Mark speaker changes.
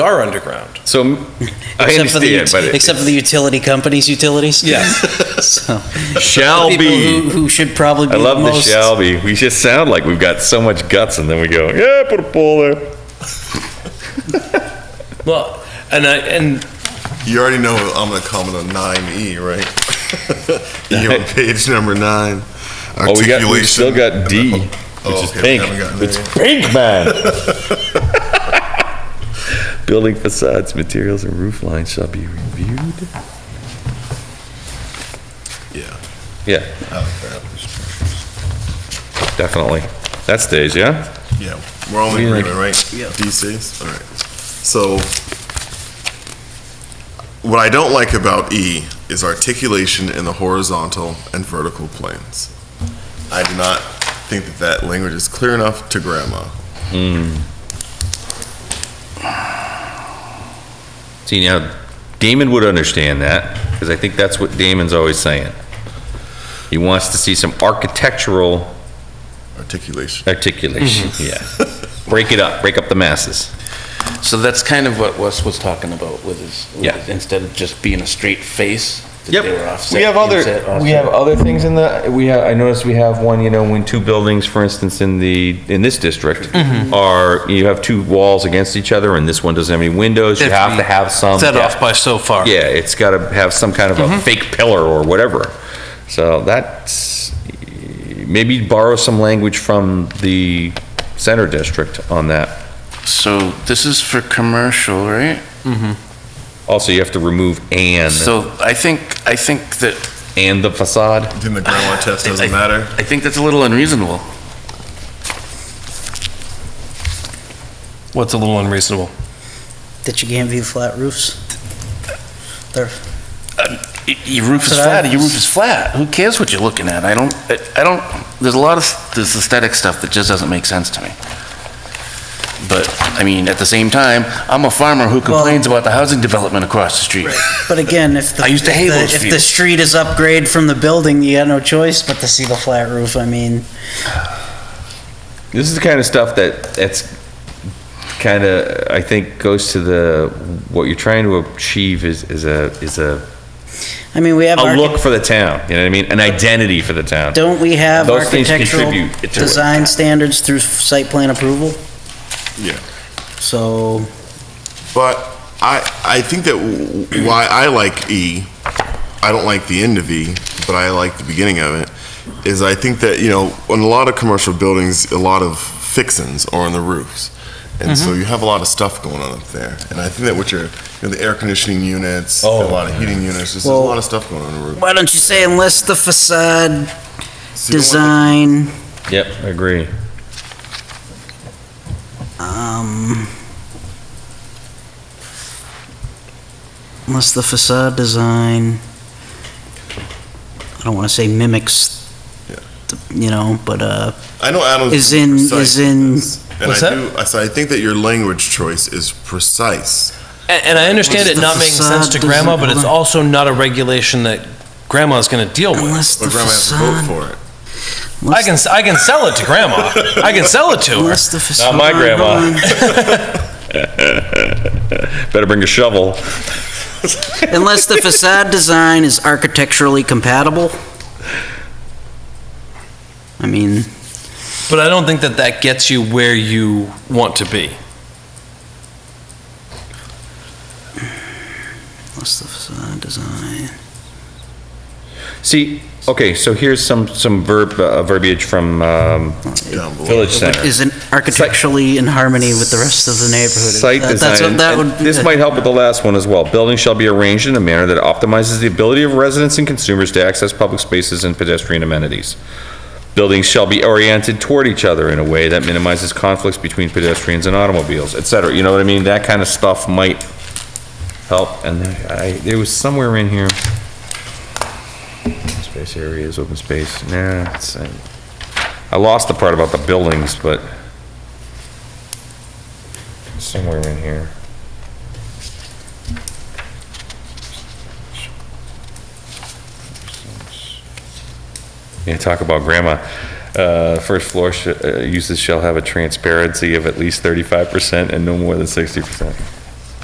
Speaker 1: are underground.
Speaker 2: So m- I
Speaker 3: Except for the
Speaker 2: understand,
Speaker 3: ut-
Speaker 2: but it
Speaker 3: Except for the utility companies, utilities?
Speaker 1: Yes.
Speaker 3: So,
Speaker 2: shall
Speaker 3: people who,
Speaker 2: be.
Speaker 3: who should probably be
Speaker 2: I love
Speaker 3: the
Speaker 2: the
Speaker 3: most.
Speaker 2: shall be. We just sound like we've got so much guts, and then we go, yeah, put a pole there.
Speaker 1: Well, and I, and
Speaker 4: You already know I'm going to comment on 9E, right? E on page number nine.
Speaker 2: Oh, we got, we still got D,
Speaker 4: Articulation.
Speaker 2: which
Speaker 4: Oh,
Speaker 2: is
Speaker 4: okay, we
Speaker 2: pink.
Speaker 4: haven't gotten there
Speaker 2: It's
Speaker 4: yet.
Speaker 2: pink, man. Building facades, materials, and roof lines shall be reviewed.
Speaker 4: Yeah.
Speaker 2: Yeah,
Speaker 4: Oh,
Speaker 2: definitely. That's Days, yeah?
Speaker 4: crap. Yeah, we're all in
Speaker 2: Yeah.
Speaker 4: agreement, right? Yeah. DCs, all right. So what I don't like about E is articulation in the horizontal and vertical planes. I do not think that that language is clear enough to grandma.
Speaker 2: See, now, Damon would understand that, because I think that's what Damon's always saying. He wants to see some architectural
Speaker 4: Articulation.
Speaker 2: articulation, yeah. Break it up, break up the masses.
Speaker 5: So that's kind of what Wes was talking about with his, with
Speaker 2: Yeah.
Speaker 5: his- instead of just being a straight face, that they were offset.
Speaker 2: We have
Speaker 5: inset,
Speaker 2: other, we
Speaker 5: offset.
Speaker 2: have other things in the, we have, I noticed we have one, you know, when two buildings, for instance, in the, in this district
Speaker 6: Mm-hmm.
Speaker 2: are, you have two walls against each other and this one doesn't have any windows, you have to have some.
Speaker 6: Set
Speaker 2: yeah.
Speaker 6: off Mm-hmm. by so far.
Speaker 2: Yeah, it's got to have some kind of a fake pillar or whatever. So that's, maybe borrow some language from the center district on that.
Speaker 5: So this is for commercial, right?
Speaker 2: Also, you have to remove and,
Speaker 5: So I think, I think that,
Speaker 2: and the facade.
Speaker 4: Then the grandma test doesn't matter.
Speaker 5: I think that's a little unreasonable.
Speaker 1: what's a little unreasonable?
Speaker 3: That you can't view flat roofs? They're,
Speaker 5: Y- Your roof is
Speaker 3: That's what I-
Speaker 5: flat, your roof is flat. Who cares what you're looking at? I don't, I- I don't, there's a lot of, this aesthetic stuff that just doesn't make sense to me. But, I mean, at the same time, I'm a farmer who complains about the housing development across the street.
Speaker 3: but again, if the.
Speaker 5: I used to hate
Speaker 3: if the-
Speaker 5: those
Speaker 3: If the
Speaker 5: views.
Speaker 3: street is upgrade from the building, you got no choice but to see the flat roof, I mean.
Speaker 2: This is the kind of stuff that, that's kind of, I think, goes to the, what you're trying to achieve is, is a, is a,
Speaker 3: I mean, we have.
Speaker 2: a
Speaker 3: archi-
Speaker 2: look for the town, you know what I mean? An identity for the town.
Speaker 3: Don't we have
Speaker 2: Those things
Speaker 3: architectural
Speaker 2: contribute to it.
Speaker 3: design standards through site plan approval?
Speaker 4: Yeah.
Speaker 3: So,
Speaker 4: But I, I think that w- w- why I like E, I don't like the end of E, but I like the beginning of it, is I think that, you know, on a lot of commercial buildings, a lot of fixins are on the roofs. And so you have a lot of stuff going on up there. And I think that with your, you know, the air conditioning units, a lot of heating units, there's a
Speaker 3: Well-
Speaker 4: lot of stuff going on on the roof.
Speaker 3: why don't you say unless the facade
Speaker 4: So you
Speaker 3: design,
Speaker 4: don't want
Speaker 2: Yep, I agree.
Speaker 3: um, unless the facade design, I don't want to say mimics,
Speaker 4: Yeah.
Speaker 3: the- you know, but, uh,
Speaker 4: I know Adam's
Speaker 3: Is in-
Speaker 4: precise
Speaker 3: is
Speaker 4: with
Speaker 3: in-
Speaker 4: this, and
Speaker 1: What's
Speaker 4: I
Speaker 1: that?
Speaker 4: do- I- So I think that your language choice is precise.
Speaker 1: And, and I understand
Speaker 3: What's
Speaker 1: it
Speaker 3: the
Speaker 1: not making sense to
Speaker 3: facade
Speaker 1: grandma,
Speaker 3: design-
Speaker 1: but it's
Speaker 3: hold on.
Speaker 1: also not a regulation that grandma's going to deal with.
Speaker 3: unless the
Speaker 4: But grandma has to vote
Speaker 3: facade.
Speaker 4: for it.
Speaker 1: I can, s- I can sell it to grandma. I can sell it to her.
Speaker 3: Unless the facade.
Speaker 2: my
Speaker 3: hold
Speaker 2: grandma.
Speaker 3: on.
Speaker 2: Better bring a shovel.
Speaker 3: Unless the facade design is architecturally compatible. I mean,
Speaker 1: But I don't think that that gets you where you want to be.
Speaker 3: unless the facade design.
Speaker 2: See, okay, so here's some, some verb, uh, verbiage from um,
Speaker 4: Down below.
Speaker 2: Village Center.
Speaker 3: Is it architecturally in harmony with the rest of the neighborhood?
Speaker 2: Site
Speaker 3: That- that's
Speaker 2: design,
Speaker 3: what that
Speaker 2: and
Speaker 3: would-
Speaker 2: this might help with the last one as well. Buildings shall be arranged in a manner that optimizes the ability of residents and consumers to access public spaces and pedestrian amenities. Buildings shall be oriented toward each other in a way that minimizes conflicts between pedestrians and automobiles, et cetera. You know what I mean? That kind of stuff might help, and I, there was somewhere in here. Space areas, open space, nah, it's, I I lost the part about the buildings, but somewhere in here. Yeah, talk about grandma. Uh, First floor sh- uh, uses shall have a transparency of at least 35% and no more than 60%.